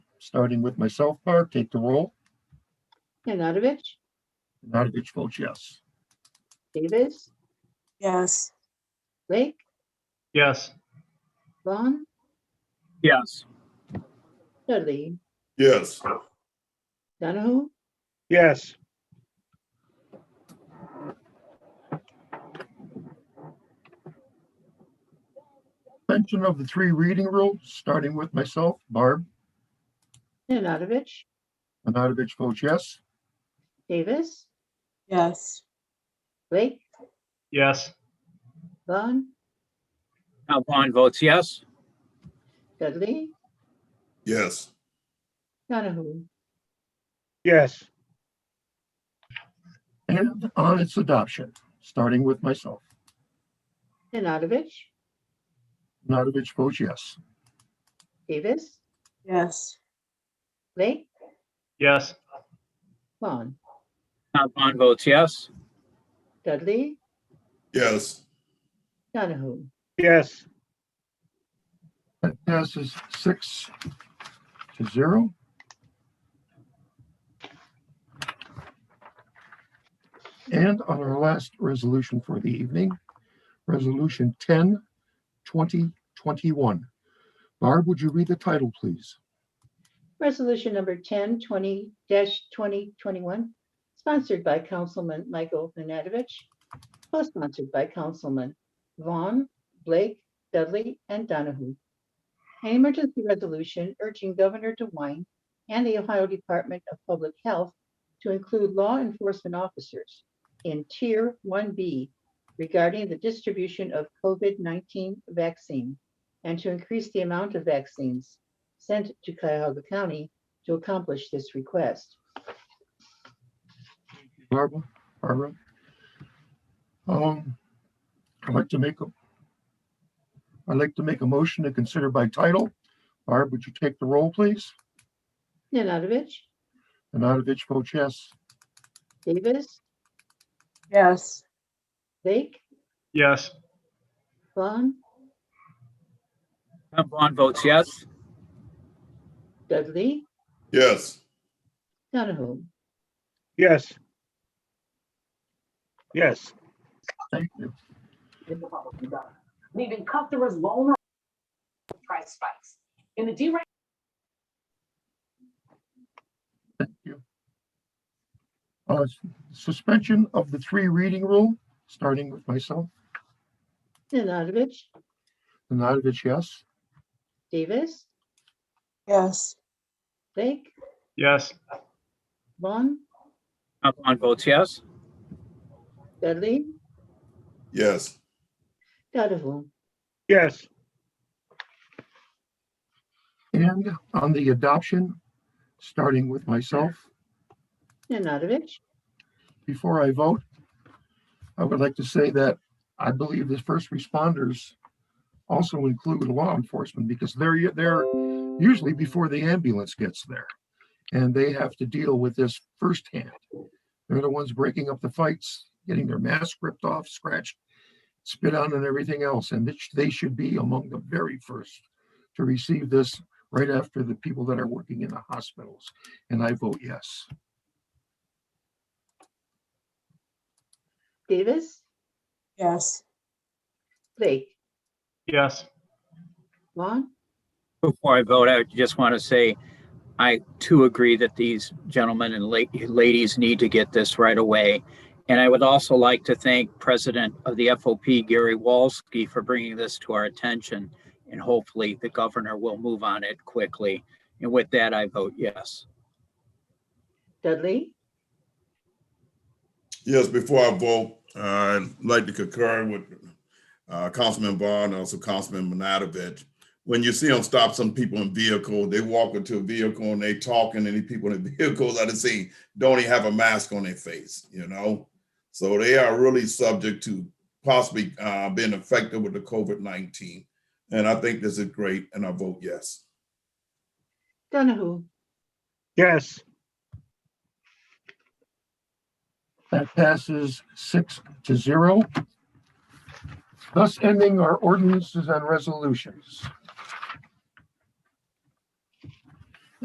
starting with myself, Barb, take the roll. Nanadovich, Nanavich votes yes. Davis, Yes. Blake, Yes. Vaughn, Yes. Dudley, yes, Donahue, Yes. Mention of the three reading rule, starting with myself, Barb, Nanadovich, Nanavich votes yes. Davis, Yes. Blake, Yes. Vaughn, Count Vaughn votes yes. Dudley, yes, Donahue, Yes. And on its adoption, starting with myself, Nanadovich, Nanavich votes yes. Davis, Yes. Blake, Yes. Vaughn, Count Vaughn votes yes. Dudley, yes, Donahue, Yes. That passes six to zero. And on our last resolution for the evening, Resolution 10, 2021. Barb, would you read the title, please? Resolution number 10, 20-2021, sponsored by Councilman Michael Nanadovich, co-sponsored by Councilman Vaughn, Blake, Dudley, and Donahue. An emergency resolution urging Governor DeWine and the Ohio Department of Public Health to include law enforcement officers in Tier 1B regarding the distribution of COVID-19 vaccine and to increase the amount of vaccines sent to Cuyahoga County to accomplish this request. Barbara, Barbara? Um, I'd like to make a, I'd like to make a motion to consider by title. Barb, would you take the roll, please? Nanadovich, Nanavich votes yes. Davis, Yes. Blake, Yes. Vaughn, Count Vaughn votes yes. Dudley, yes, Donahue. Yes. Yes. Thank you. in the public and government, leaving customers vulnerable to price spikes. In the deregulation Thank you. Uh, s- Suspension of the three reading rule, starting with myself. Nanadovich, Nanavich, yes. Davis, Yes. Blake, Yes. Vaughn, Count Vaughn votes yes. Dudley, yes, Donahue. Yes. And on the adoption, starting with myself, Nanadovich, before I vote, I would like to say that I believe the first responders also include law enforcement because they're, they're usually before the ambulance gets there. And they have to deal with this firsthand. They're the ones breaking up the fights, getting their mask ripped off, scratched, spit on and everything else. And which they should be among the very first to receive this right after the people that are working in the hospitals. And I vote yes. Davis, Yes. Blake, Yes. Vaughn, Before I vote, I just want to say, I too agree that these gentlemen and la- ladies need to get this right away. And I would also like to thank President of the FOP, Gary Walski, for bringing this to our attention. And hopefully the governor will move on it quickly. And with that, I vote yes. Dudley, yes. Before I vote, uh, I'd like to concur with uh, Councilman Vaughn, and also Councilman Manadovich. When you see them stop some people in vehicle, they walk into a vehicle and they talk and any people in the vehicles I've seen don't even have a mask on their face, you know? So they are really subject to possibly uh, being affected with the COVID-19. And I think this is great and I vote yes. Donahue, Yes. That passes six to zero. Thus ending our ordinances and resolutions.